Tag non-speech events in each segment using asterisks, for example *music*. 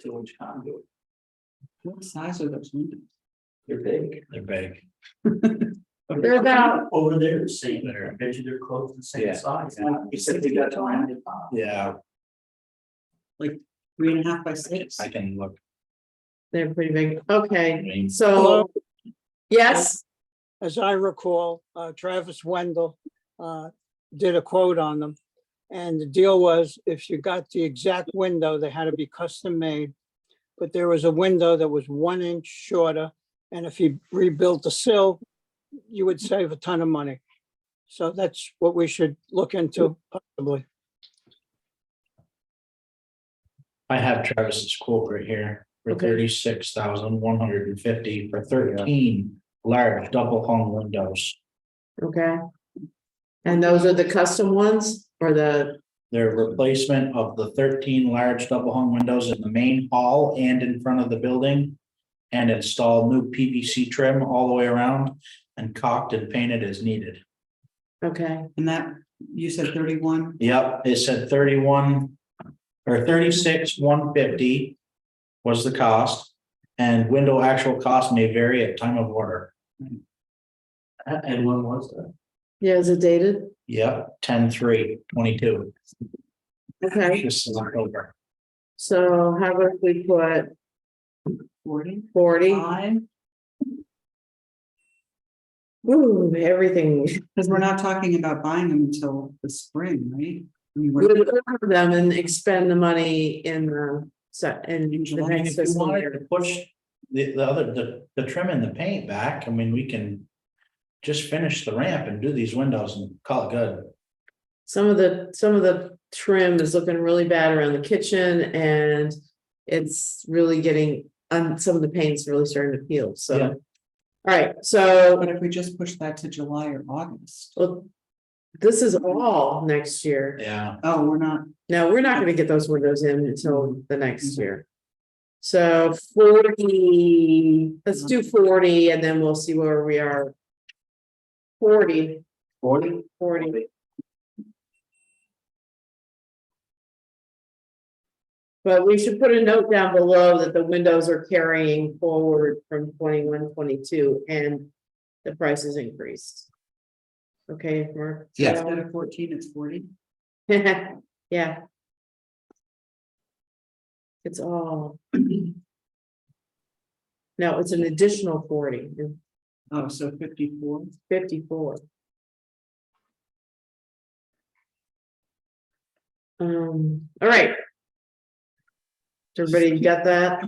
sewage conduit. What size are those windows? They're big. They're big. *laughs* They're about- Over there, the same, There. I bet you they're close to the Yeah. same size. Like, you said they got surrounded by Yeah, three and a half by six. I can look. They're pretty big. I Okay, mean, so. Hello? Yes, as I recall, uh, Travis Wendell uh, did a quote on them. And the deal was if you got the exact window, they had to be custom made. But there was a window that was one inch shorter. And if you rebuilt the sill, you would save a ton of money. So that's what we should look into possibly. I have Travis's quote right here for Okay. thirty-six thousand one hundred and fifty for thirteen large double hung windows. okay. And those are the custom ones or the, They're replacement of the thirteen large double hung windows in the main hall and in front of the building. And install new PVC trim all the way around and caulked and painted as needed. okay, And that, you said thirty-one, Yep, it said thirty-one or thirty-six, one fifty was the cost. And window actual cost may vary at time of order. And and when was that? yeah, is it dated? Yep, ten, three, twenty-two. Okay, This is October. so how about we put forty? forty-five? Ooh, everything. Because we're not talking about buying them until the spring, right? I mean, We we're- would order them and expend the money in the, se- in In the July, next If you fiscal wanted year. to push the, the other, the, the trim and the paint back, I mean, we can just finish the ramp and do these windows and call it good. Some of the, some of the trim is looking really bad around the kitchen and it's really getting, um, some of the paint's really starting to peel, so. Yeah. All right, so, But if we just push that to July or August, well, this is all next year. Yeah. oh, we're not, No, we're not gonna get those windows in until the next year. So forty, let's do forty and then we'll see where we are. Forty. Forty? Forty. But we should put a note down below that the windows are carrying forward from 21, 22, and the price is increased. Okay, Mark? Yes. instead of fourteen, it's forty. *laughs* Yeah. It's all. *clears throat* No, it's an additional forty, Oh, so fifty-four. fifty-four. Um, all right. Everybody got that?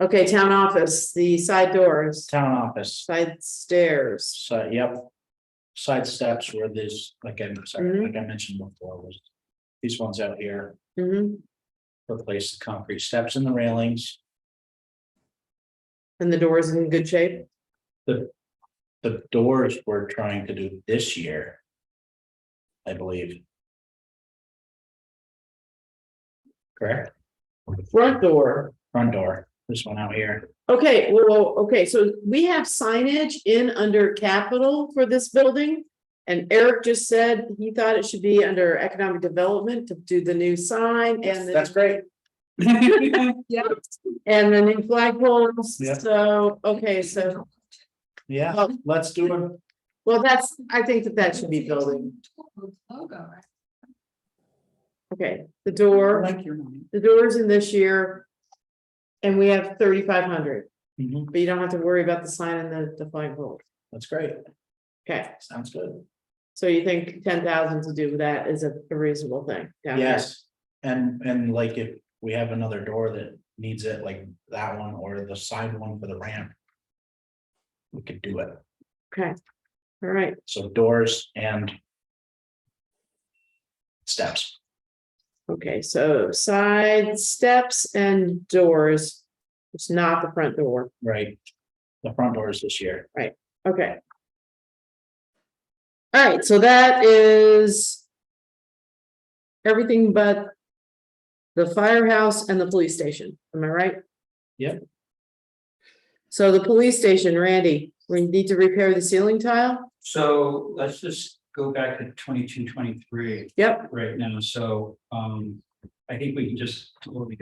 Okay, town office, the side doors, Town office, side stairs, so, yep. Side steps where there's, like I, sorry, like I mentioned before, was these ones out here. mhm, replace the concrete steps and the railings. and the doors in good shape, The doors we're trying to do this year. I believe. Correct? front door. Front door, this one out here. Okay, well, well, okay, so we have signage in under capital for this building. And Eric just said he thought it should be under economic development to do the new sign and That's the, great. and the new flagpoles. Yeah. So, okay, so, Yeah, well, let's do it. well, that's, I think that that should be building. Logo, right? Okay, the I door, Like your money. the doors in this year. And we have thirty-five hundred, Mhm, but you don't have to worry about the sign and the, the flagpole. That's great. Okay, Sounds good. so you think ten thousand to do that is a a reasonable thing? down there? Yes. And, and like if we have another door that needs it, like that one or the side one for the ramp. We could do it. Okay, all right, So doors and. Steps. okay, so side steps and doors. It's not the front door, Right. The front doors this year. okay. All right, so that is. Everything but. The firehouse and the police station, am I right? Yep. So the police station, Randy, we need to repair the ceiling tile? So let's just go back to twenty-two, twenty-three Yep. right now, so, um, I think we can just totally